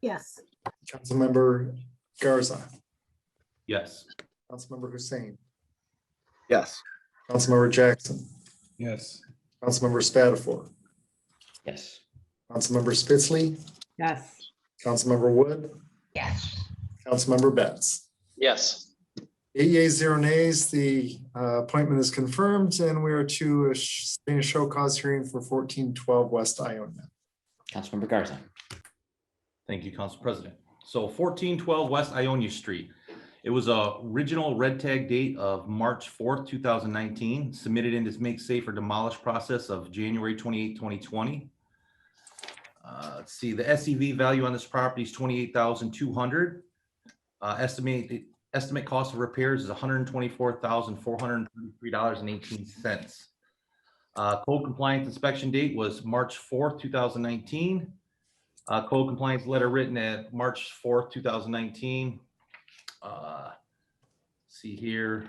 Yes. Councilmember Garza, Yes. Councilmember Hussein, Yes. Councilmember Jackson, Yes. Councilmember Spatafor, Yes. Councilmember Spitzley, Yes. Councilmember Wood, Yes. Councilmember Betts. Yes. Eight yeas, zero nays, the uh, appointment is confirmed and we are to a sh- sustain a show cause hearing for fourteen twelve West Iona. Councilmember Garza. Thank you, Council President. So fourteen twelve West Ionia Street. It was a original red tag date of March fourth, two thousand nineteen, submitted in this make safe or demolish process of January 28, 2020. Uh, let's see, the SEV value on this property is twenty-eight thousand two hundred. Uh, estimate, estimate cost of repairs is hundred and twenty-four thousand four hundred and thirty-three dollars and eighteen cents. Uh, code compliance inspection date was March fourth, two thousand nineteen. Uh, code compliance letter written at March fourth, two thousand nineteen. Uh, See here.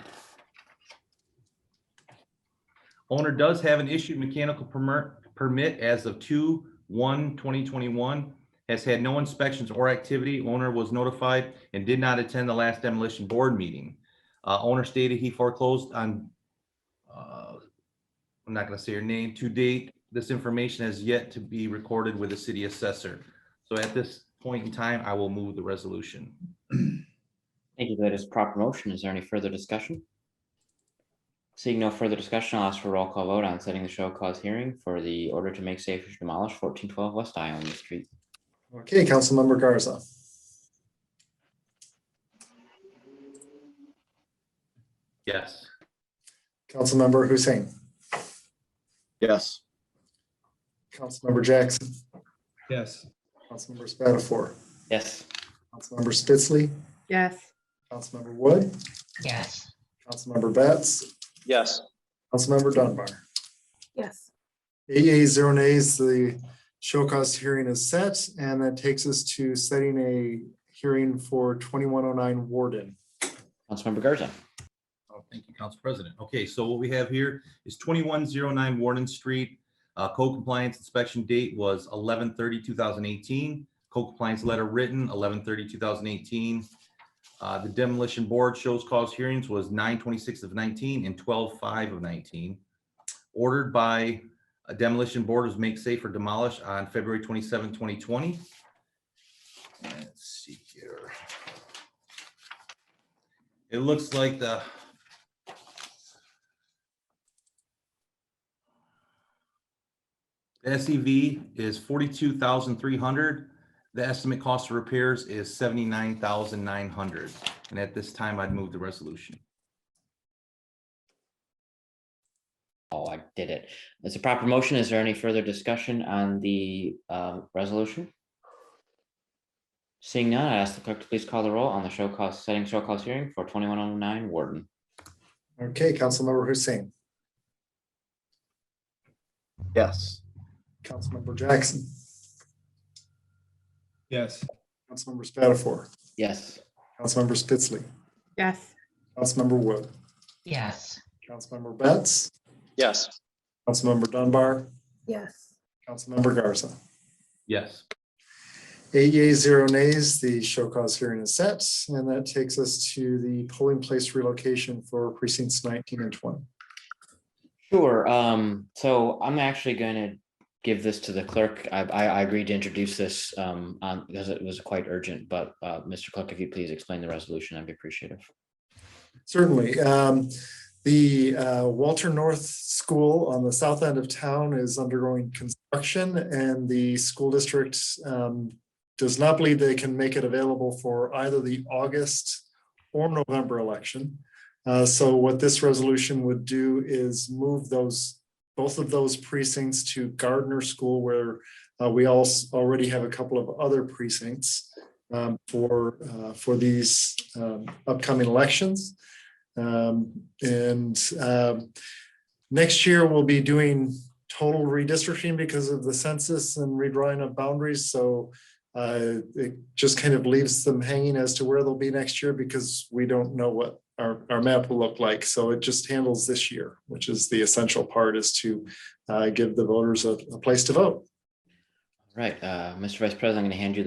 Owner does have an issued mechanical permit, permit as of two, one, 2021. Has had no inspections or activity. Owner was notified and did not attend the last demolition board meeting. Uh, owner stated he foreclosed on, uh, I'm not gonna say your name, to date, this information has yet to be recorded with the city assessor. So at this point in time, I will move the resolution. Thank you. That is proper motion. Is there any further discussion? Seeing no further discussion, I'll ask for roll call vote on setting the show cause hearing for the order to make safe or demolish fourteen twelve West Island Street. Okay, Councilmember Garza, Yes. Councilmember Hussein, Yes. Councilmember Jackson, Yes. Councilmember Spatafor, Yes, Councilmember Spitzley, Yes. Councilmember Wood, Yes. Councilmember Betts, Yes. Councilmember Dunbar. Yes. Eight yeas, zero nays, the show cause hearing is set, and that takes us to setting a hearing for twenty-one oh nine Warden. Councilmember Garza. Oh, Thank you, Council President. Okay, so what we have here is twenty-one zero nine Warden Street. Uh, code compliance inspection date was 2018. Code compliance letter written 2018. Uh, the demolition board shows cause hearings was nine twenty-six of nineteen and twelve five of nineteen. Ordered by a demolition board was make safe or demolish on February 27, 2020. Let's see here. It looks like the The SEV E is forty-two thousand three hundred. The estimate cost of repairs is seventy-nine thousand nine hundred. And at this time, I'd move the resolution. Oh, I did it. It's a proper motion. Is there any further discussion on the um, resolution? Seeing none, I ask the clerk to please call the roll on the show cause, setting show cause hearing for twenty-one oh nine Warden. Okay, Councilmember Hussein, Yes. Councilmember Jackson, Yes. Councilmember Spatafor, Yes. Councilmember Spitzley, Yes. Councilmember Wood, Yes. Councilmember Betts, Yes. Councilmember Dunbar, Yes. Councilmember Garza. Yes. Eight yeas, zero nays, the show cause hearing is set, and that takes us to the polling place relocation for precincts nineteen and twenty. Sure, um, so I'm actually gonna give this to the clerk. I, I, I agreed to introduce this, um, on, because it was quite urgent, but, uh, Mr. Clerk, if you please explain the resolution, I'd be appreciative. Certainly. Um, The uh, Walter North School on the south end of town is undergoing construction and the school district um, does not believe they can make it available for either the August or November election. Uh, So what this resolution would do is move those, both of those precincts to Gardner School where uh, we also already have a couple of other precincts um, for, uh, for these um, upcoming elections. Um, and, um, next year we'll be doing total redistricting because of the census and redrawing of boundaries, so uh, it just kind of leaves them hanging as to where they'll be next year because we don't know what our, our map will look like, so it just handles this year, which is the essential part is to uh, give the voters a, a place to vote. Right, uh, Mr. Vice President, I'm gonna hand you